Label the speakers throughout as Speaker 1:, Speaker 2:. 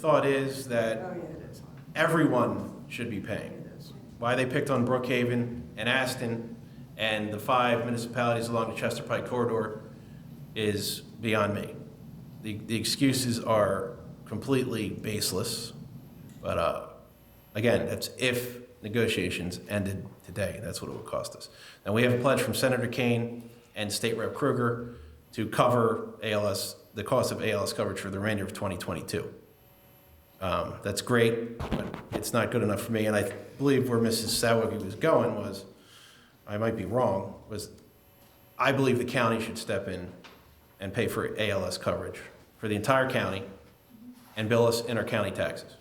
Speaker 1: thought is that
Speaker 2: Oh, yeah, it is.
Speaker 1: everyone should be paying.
Speaker 2: It is.
Speaker 1: Why they picked on Brookhaven and Aston and the five municipalities along the Chester Pike corridor is beyond me. The, the excuses are completely baseless, but, uh, again, that's if negotiations ended today, that's what it would cost us. Now, we have a pledge from Senator Kane and State Rep Kruger to cover ALS, the cost of ALS coverage for the remainder of 2022. Um, That's great, but it's not good enough for me, and I believe where Mrs. Sawicki was going was, I might be wrong, was I believe the county should step in and pay for ALS coverage for the entire county and bill us inter-county taxes.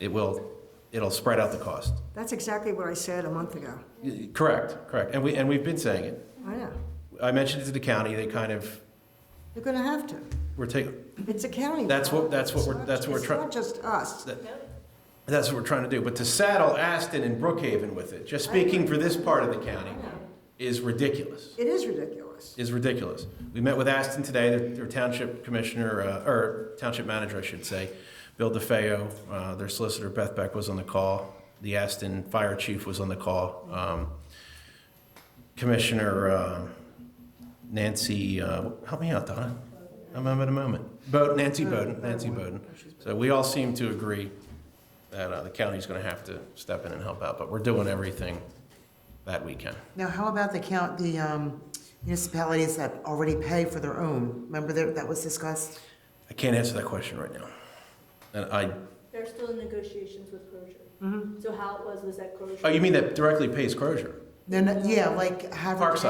Speaker 1: It will, it'll spread out the cost.
Speaker 2: That's exactly what I said a month ago.
Speaker 1: Y- Correct, correct, and we, and we've been saying it.
Speaker 2: I know.
Speaker 1: I mentioned it to the county, they kind of
Speaker 2: You're going to have to.
Speaker 1: were taking,
Speaker 2: It's a county.
Speaker 1: That's what-
Speaker 2: problem.
Speaker 1: that's what
Speaker 2: It's
Speaker 1: we're-
Speaker 2: not-
Speaker 1: that's what we're try-
Speaker 2: It's not just us.
Speaker 1: That- That's what we're trying to do. But to saddle Aston and Brookhaven with it, just speaking for this part of the county, is ridiculous.
Speaker 2: It is ridiculous.
Speaker 1: Is ridiculous. We met with Aston today, their, their township commissioner, uh, or township manager, I should say, Bill DeFeo, uh, their solicitor Beth Beck was on the call. The Aston fire chief was on the call. Um, Commissioner, uh, Nancy, uh, help me out, Donna. I'm at a moment. Bo, Nancy Bowden, Nancy Bowden. So we all seem to agree that uh, the county's going to have to step in and help out, but we're doing everything that we can.
Speaker 3: Now, how about the count, the um, municipalities that already pay for their own? Remember that, that was discussed?
Speaker 1: I can't answer that question right now. And I,
Speaker 4: They're still in negotiations with Crozier. So how it was was that Crozier.
Speaker 1: Mm-hmm. oh, you mean that directly pays Crozier?
Speaker 3: No, no, yeah, like
Speaker 1: Parkside,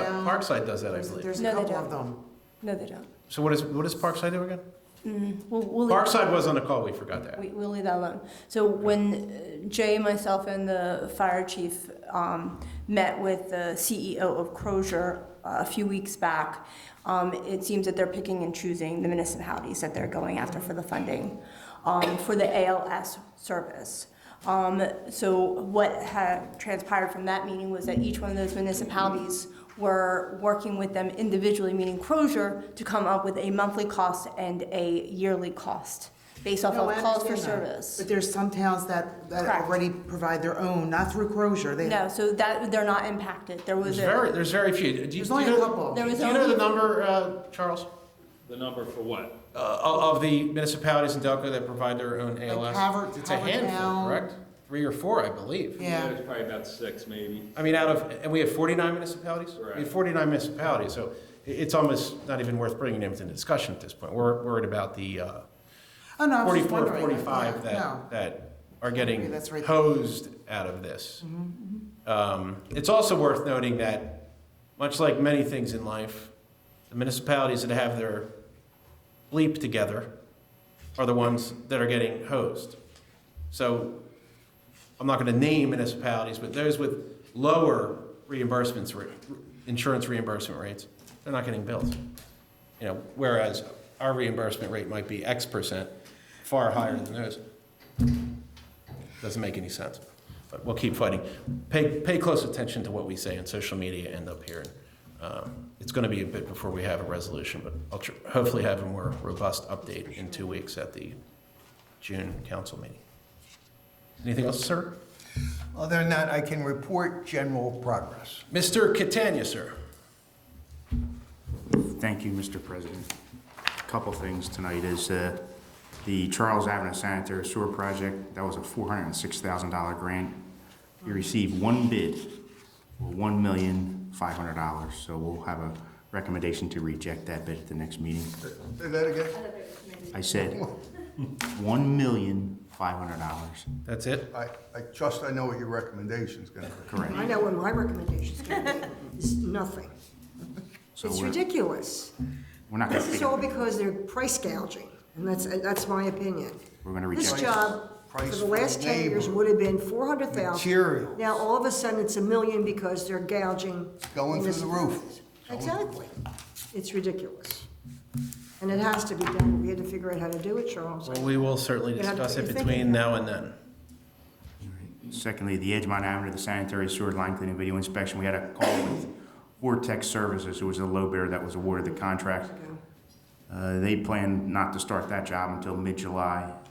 Speaker 3: Havertown.
Speaker 1: Parkside does that, I
Speaker 3: There's
Speaker 1: believe.
Speaker 3: there's a
Speaker 5: No, they
Speaker 3: couple of
Speaker 5: don't.
Speaker 3: them.
Speaker 5: No, they don't.
Speaker 1: So what is, what does Parkside do again?
Speaker 5: We'll, we'll leave,
Speaker 1: Parkside was on the call, we forgot that.
Speaker 5: we, we'll leave that alone. So when uh, Jay, myself, and the fire chief um, met with the CEO of Crozier uh, a few weeks back, um, it seems that they're picking and choosing the municipalities that they're going after for the funding um, for the ALS service. Um, so what had transpired from that meeting was that each one of those municipalities were working with them individually, meaning Crozier, to come up with a monthly cost and a yearly cost based off
Speaker 3: No,
Speaker 5: of
Speaker 3: I
Speaker 5: calls for
Speaker 3: understand that.
Speaker 5: service.
Speaker 3: But there's some towns that, that
Speaker 5: Correct.
Speaker 3: already provide their own, not through Crozier. They,
Speaker 5: No, so that, they're not impacted. There
Speaker 1: There's
Speaker 5: was
Speaker 1: very,
Speaker 5: a,
Speaker 1: there's very few. Do you-
Speaker 3: there's
Speaker 1: do
Speaker 3: only
Speaker 1: you
Speaker 3: a
Speaker 1: know-
Speaker 3: couple.
Speaker 5: there
Speaker 1: Do
Speaker 5: was
Speaker 1: you know the
Speaker 5: only,
Speaker 1: number, uh, Charles?
Speaker 6: The number for what?
Speaker 1: Uh, of of the municipalities in Delco that provide their own ALS?
Speaker 3: Havert-
Speaker 1: It's a handful,
Speaker 3: Havertown.
Speaker 1: correct? Three or four, I believe.
Speaker 3: Yeah,
Speaker 6: It's probably about six, maybe.
Speaker 1: I mean, out of, and we have 49 municipalities? We have
Speaker 6: Correct.
Speaker 1: 49 municipalities, so i- it's almost not even worth bringing them into discussion at this point. We're worried about the uh,
Speaker 3: oh, no, I was just
Speaker 1: 44,
Speaker 3: wondering.
Speaker 1: 45
Speaker 3: Yeah,
Speaker 1: that, that are getting
Speaker 3: Maybe that's right. Mm-hmm,
Speaker 1: hosed out of this. Um, It's also worth noting that, much like many things in life, the municipalities that have their bleep together are the ones that are getting hosed. So I'm not going to name municipalities, but those with lower reimbursements, ra- insurance reimbursement rates, they're not getting billed. You know, whereas our reimbursement rate might be X percent, far higher than theirs. Doesn't make any sense, but we'll keep fighting. Pay, pay close attention to what we say on social media and up here. Um, It's going to be a bit before we have a resolution, but I'll tr- hopefully have a more robust update in two weeks at the June council meeting. Anything else, sir?
Speaker 7: Other than that, I can report general progress.
Speaker 1: Mr. Catania, sir.
Speaker 8: Thank you, Mr. President. A Couple things tonight is uh, the Charles Avenue Sanitary Sewer Project, that was a $406,000 grant. We received one bid for $1,500,000, so we'll have a recommendation to reject that bid at the next meeting.
Speaker 7: Say that again?
Speaker 4: I thought they were maybe-
Speaker 8: I said $1,500,000,
Speaker 1: That's it?
Speaker 7: I, I trust I know what your recommendation's gonna be.
Speaker 8: correct?
Speaker 2: I know what my recommendation's going to be. It's nothing.
Speaker 8: So
Speaker 2: It's
Speaker 8: we're-
Speaker 2: ridiculous.
Speaker 8: We're not
Speaker 2: This
Speaker 8: gonna
Speaker 2: is
Speaker 8: pick
Speaker 2: all
Speaker 8: it.
Speaker 2: because they're price gouging, and that's, uh, that's my opinion.
Speaker 8: We're gonna
Speaker 2: This
Speaker 8: reject it.
Speaker 2: job, for
Speaker 7: Price
Speaker 2: the
Speaker 7: for
Speaker 2: last ten years,
Speaker 7: labor.
Speaker 2: would have been four hundred thousand.
Speaker 7: Materials.
Speaker 2: Now, all of a sudden, it's a million because they're gouging.
Speaker 7: Going through the roof.
Speaker 2: municipalities. Exactly. It's ridiculous. And it has to be done. We had to figure out how to do it, Charles.
Speaker 1: Well, we will certainly
Speaker 2: You have to
Speaker 1: discuss
Speaker 2: put
Speaker 1: it
Speaker 2: your thinking
Speaker 1: between now and then.
Speaker 8: Secondly, the Edgemont Avenue, the sanitary sewer line cleaning video inspection, we had a call with Vortex Services, who was the low bidder that was awarded the contract. Uh, They plan not to start that job until mid-July.